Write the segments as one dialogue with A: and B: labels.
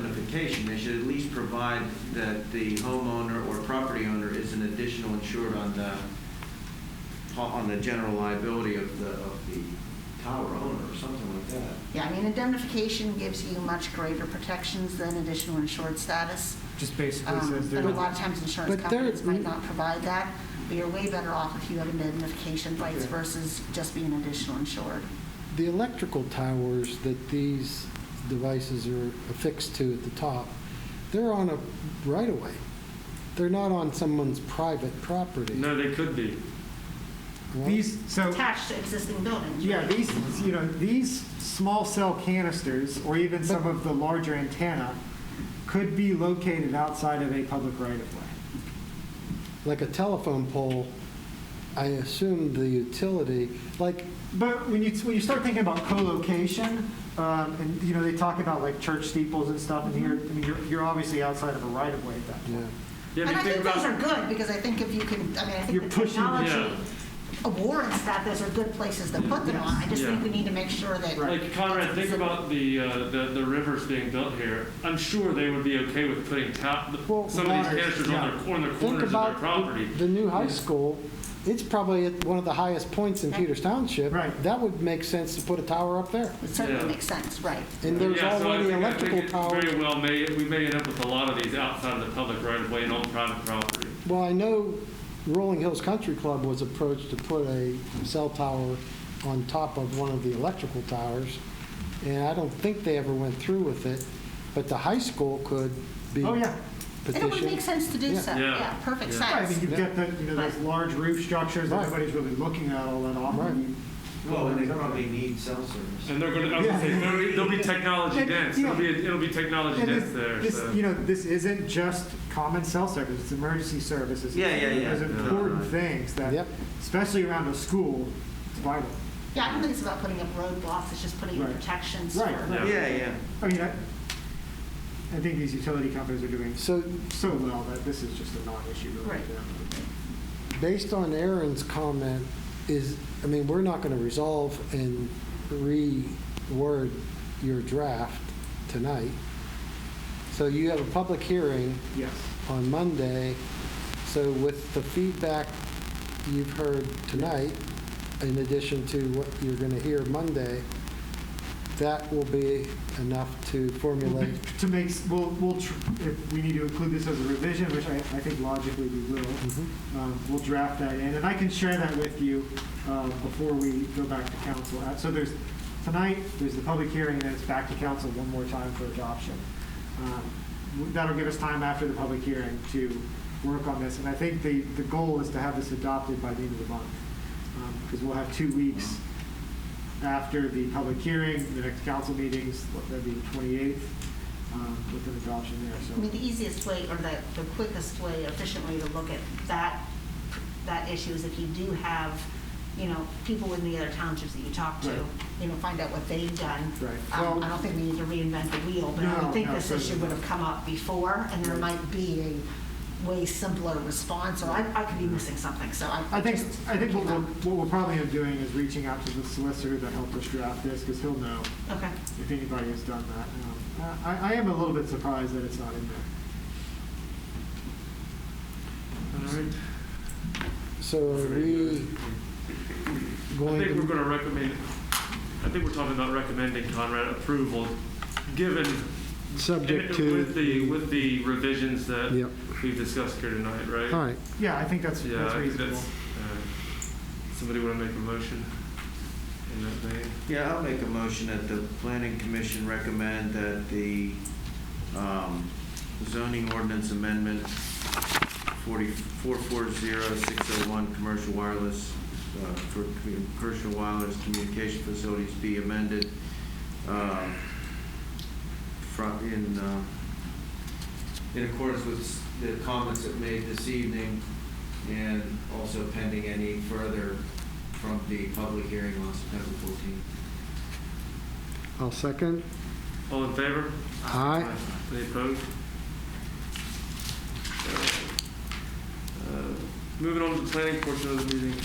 A: indemnification, they should at least provide that the homeowner or property owner is an additional insured on the, on the general liability of the, of the tower owner or something like that.
B: Yeah, I mean, indemnification gives you much greater protections than additional insured status.
C: Just basically
B: Um,
C: says
B: And a
C: there,
B: lot of times, insurance
D: But there-
B: companies might not provide that. But you're way better off if you have indemnification rights
D: Okay.
B: versus just being additional insured.
D: The electrical towers that these devices are affixed to at the top, they're on a right-of-way. They're not on someone's private property.
E: No, they could be.
D: Well,
C: these, so,
B: Attached to existing buildings.
C: yeah,
B: right?
C: these, you know, these small cell canisters, or even some of the larger antenna, could be located outside of a public right-of-way.
D: Like a telephone pole, I assume the utility, like,
C: But when you, when you start thinking about co-location, um, and, you know, they talk about like church steeples and stuff, and you're, I mean, you're, you're obviously outside of a right-of-way at that
D: yeah,
C: point.
E: Yeah,
B: And
E: if
B: I
E: you think
B: think those are
E: about,
B: good, because I think if you can, I mean, I think
C: You're
B: the
C: pushing-
B: technology
E: Yeah.
B: warrants that, those are good places to put them on. I just think
E: Yeah.
B: we need to make sure that.
E: like Conrad, think about the, uh, the, the rivers being built here. I'm sure they would be okay with putting top,
D: Well,
E: some of
D: waters,
E: these canisters on their, on the
D: Think
E: corners of their
D: about
E: property.
D: the- the new high school, it's probably at one of the highest points in Peters Township.
C: Right.
D: That would make sense to put a tower up there.
B: It certainly
E: Yeah.
B: makes sense, right.
D: And there's
E: Yeah, so I
D: already
E: think- I think
D: electrical
E: it
D: towers.
E: Very well, may, we may end up with a lot of these outside of the public right of way and on private property.
D: Well, I know Rolling Hills Country Club was approached to put a cell tower on top of one of the electrical towers, and I don't think they ever went through with it, but the high school could be
C: Oh, yeah.
B: And it would make
D: petitioned.
B: sense to do
D: Yeah.
B: so.
E: Yeah.
B: Yeah, perfect
E: Yeah.
C: Right, I
B: sense.
C: mean, you've got the, you know, those large roof structures that
D: Right.
C: nobody's really looking at all that often.
A: Well, and they probably need cell service.
E: And they're gonna, I was gonna say, there'll be, there'll be technology
C: And,
E: dense,
C: you
E: it'll
C: know,
E: be, it'll be technology
C: And
E: dense
C: this-
E: there,
C: this,
E: so.
C: you know, this isn't just common cell service, it's emergency services.
A: Yeah, yeah, yeah.
C: There's
A: No,
C: important
A: right.
C: things that,
D: Yep.
C: especially around a school, it's vital.
B: Yeah, I don't think it's about putting up roadblocks, it's just putting up
C: Right.
B: protections
C: Right,
B: for-
E: Yeah.
A: Yeah, yeah.
C: I mean, I, I think these utility companies are doing
D: So
C: so well that this is just a non-issue really
B: Right.
C: for them.
D: based on Aaron's comment, is, I mean, we're not going to resolve and reword your draft tonight. So you have a public hearing.
C: Yes.
D: on Monday. So with the feedback you've heard tonight, in addition to what you're going to hear Monday, that will be enough to formulate.
C: To make, s- we'll, we'll, tr- if we need to include this as a revision, which I, I think logically we will,
D: Mhm.
C: um, we'll draft that in, and I can share that with you um, before we go back to council. Uh, So there's, tonight, there's the public hearing, and then it's back to council one more time for adoption. Um, w- That'll give us time after the public hearing to work on this, and I think the, the goal is to have this adopted by the end of the month, because we'll have two weeks after the public hearing, the next council meetings, what, that'd be the 28th, um, with an adoption there, so.
B: I mean, the easiest way, or the, the quickest way, efficient way to look at that, that issue is if you do have, you know, people in the other townships that you talk to,
C: Right.
B: you know, find out what they've done.
C: Right.
B: Um,
C: Well-
B: I don't think we need to reinvent the wheel, but I
C: No,
B: would think
C: no,
B: this issue
C: certainly
B: would
C: not.
B: have come up before, and there
C: Right.
B: might be a way simpler response, or I, I could be missing something, so I.
C: I think,
B: just-
C: I think what we're, what we're probably end up doing is reaching out to the solicitor that helped us draft this, because he'll know
B: Okay.
C: if anybody has done that. Um, I, I am a little bit surprised that it's not in there. All right.
D: So are we
E: I
D: going
E: think we're
D: to,
E: gonna recommend, I think we're talking about recommending Conrad approval, given.
D: subject to?
E: With the, with the revisions that
D: Yep.
E: we've discussed here tonight, right?
D: All right,
C: Yeah, I think that's,
E: Yeah,
C: that's
E: I think
C: reasonable.
E: that's, uh, somebody wanna make a motion in that vein?
A: Yeah, I'll make a motion that the planning commission recommend that the um, zoning ordinance amendment 440601, oh, commercial wireless, uh, for commu- commercial wireless communication facilities be amended um, from, in, um, in accordance with s- the comments that made this evening, and also pending any further from the public hearing on September 14th.
D: I'll second.
E: All in favor?
D: Aye.
E: Any opposed? Uh, Moving on to the planning portion of the meeting,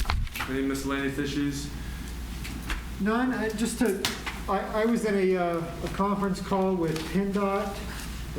E: any miscellaneous issues?
C: None, I- just to, I, I was in a, uh, a conference call with PennDOT